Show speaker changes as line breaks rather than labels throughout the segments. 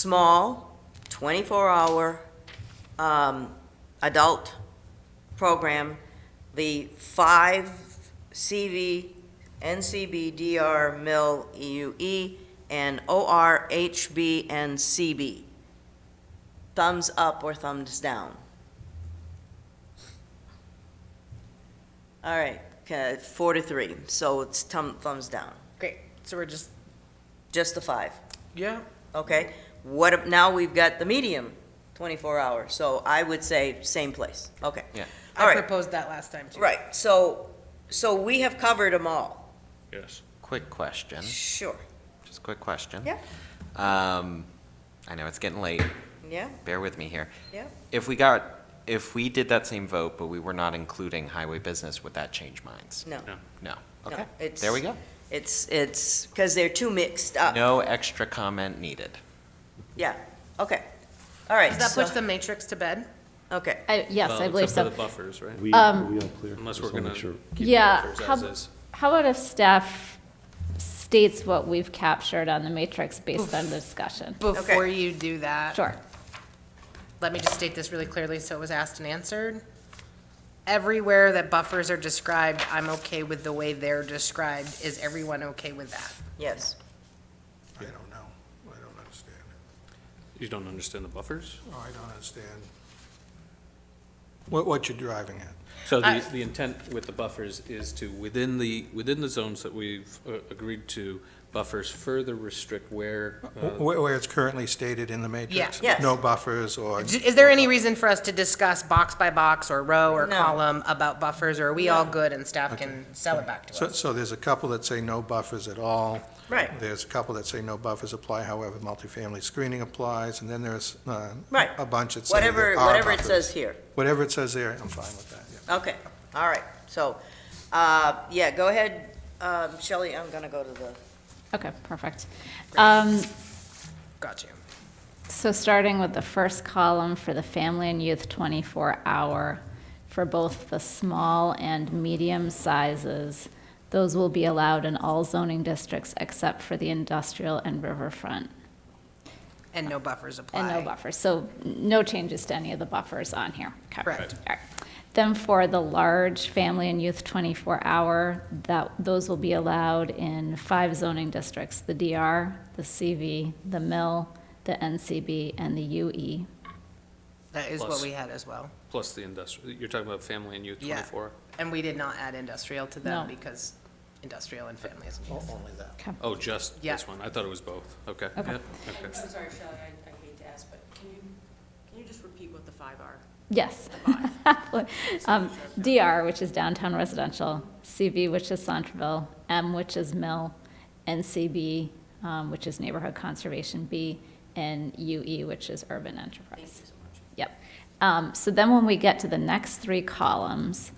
small, 24-hour um, adult program, the five CV, NCB, DR, MIL, EUE, E and OR, HB, and CB. Thumbs up or thumbs down? All right, ca- four to three, so it's thumb- thumbs down,
Great. So we're just
just the five.
Yeah,
Okay, what, ab- now we've got the medium, 24 hours, so I would say same place, okay.
Yeah.
All
I
right,
proposed that last time too.
right, so, so we have covered them all,
Yes.
quick question,
sure,
just quick question.
Yeah.
Um, I know it's getting late,
yeah,
bear with me here.
yeah.
If we got, if we did that same vote, but we were not including highway business, would that change minds?
No,
No.
No,
No,
okay,
it's-
there we go.
it's, it's, because they're too mixed up,
No extra comment needed.
yeah, okay, all right.
Does that
so-
push the matrix to bed?
Okay,
I- Yes, I believe
For
so.
the buffers, right?
We, are we all clear?
Unless
Just
we're
wanna
gonna
make sure.
keep the
Yeah.
buffers
How
as is.
how about if staff states what we've captured on the matrix based on the discussion?
Before you do that.
Sure.
Let me just state this really clearly so it was asked and answered. Everywhere that buffers are described, I'm okay with the way they're described. Is everyone okay with that?
yes,
I don't know. I don't understand it.
You don't understand the buffers?
I don't understand what, what you're driving at.
So
I-
the, the intent with the buffers is to, within the, within the zones that we've uh, agreed to, buffers further restrict where,
Wh-
uh,
Where, where it's currently stated in the matrix?
Yeah. Yes.
No buffers or?
D- Is there any reason for us to discuss box by box or row or
No.
column about buffers, or are we all good and staff can sell it back to
So,
us?
so there's a couple that say no buffers at all.
Right.
There's a couple that say no buffers apply, however, multifamily screening applies, and then there's, uh,
Right.
a bunch that say there
whatever,
are
whatever it
buffers.
says here,
Whatever it says there, I'm fine with that, yeah.
okay, all right, so, uh, yeah, go ahead, um, Shelley, I'm gonna go to the,
Okay, perfect. Um,
Got you.
So starting with the first column for the family and youth 24-hour, for both the small and medium sizes, those will be allowed in all zoning districts except for the industrial and riverfront,
And no buffers apply.
and no buffers. So no changes to any of the buffers on here. Okay.
Correct.
All right. Then for the large family and youth 24-hour, that, those will be allowed in five zoning districts, the DR, the CV, the MIL, the NCB, and the E. UE.
That is what
Plus.
we had as well.
plus the industrial, you're talking about family and youth
Yeah.
twenty-four?
And we did not add industrial to them
No.
because industrial and family is.
Oh, just
Yeah.
this one? I thought it was both. Okay.
Okay.
Yeah, okay.
I'm sorry, Shelley, I, I hate to ask, but can you, can you just repeat what the five are?
Yes. Um, DR, which is downtown residential, CV, which is Centerville, M, which is Mill, NCB, um, which is neighborhood conservation B, and UE, which is urban
Thank you
enterprise.
so much.
Yep. Um, so then when we get to the next three columns,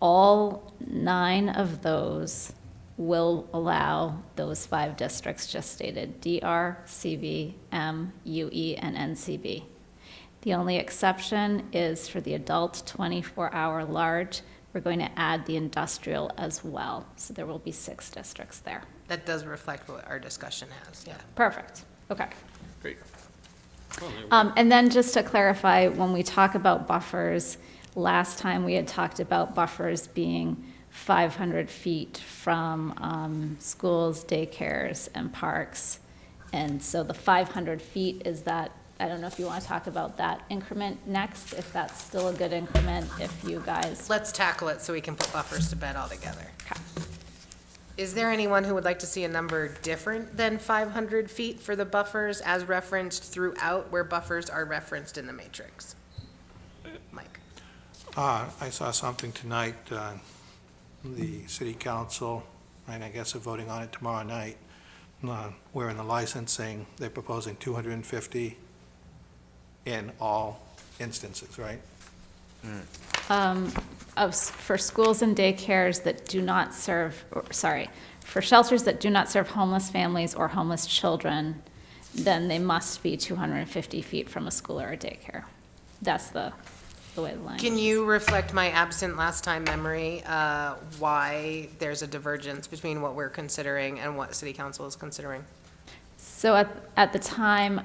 all nine of those will allow those five districts just stated, DR, CV, M, UE, and NCB. The only exception is for the adult 24-hour large, we're going to add the industrial as well. So there will be six districts there.
That does reflect what our discussion has, yeah.
Perfect. Okay.
Great. Well, there we go.
Um, and then just to clarify, when we talk about buffers, last time we had talked about buffers being five hundred feet from, um, schools, daycares, and parks. And so the five hundred feet is that, I don't know if you want to talk about that increment next, if that's still a good increment, if you guys,
Let's tackle it so we can put buffers to bed altogether.
Okay.
Is there anyone who would like to see a number different than 500 feet for the buffers as referenced throughout where buffers are referenced in the matrix? Mike?
Uh, I saw something tonight, uh, the city council, and I guess they're voting on it tomorrow night, uh, where in the licensing, they're proposing 250 in all instances, right?
um, of, s- for schools and daycares that do not serve, or, sorry, for shelters that do not serve homeless families or homeless children, then they must be 250 feet from a school or a daycare. That's the, the way the line.
Can you reflect my absent last time memory, uh, why there's a divergence between what we're considering and what city council is considering?
So at, at the time,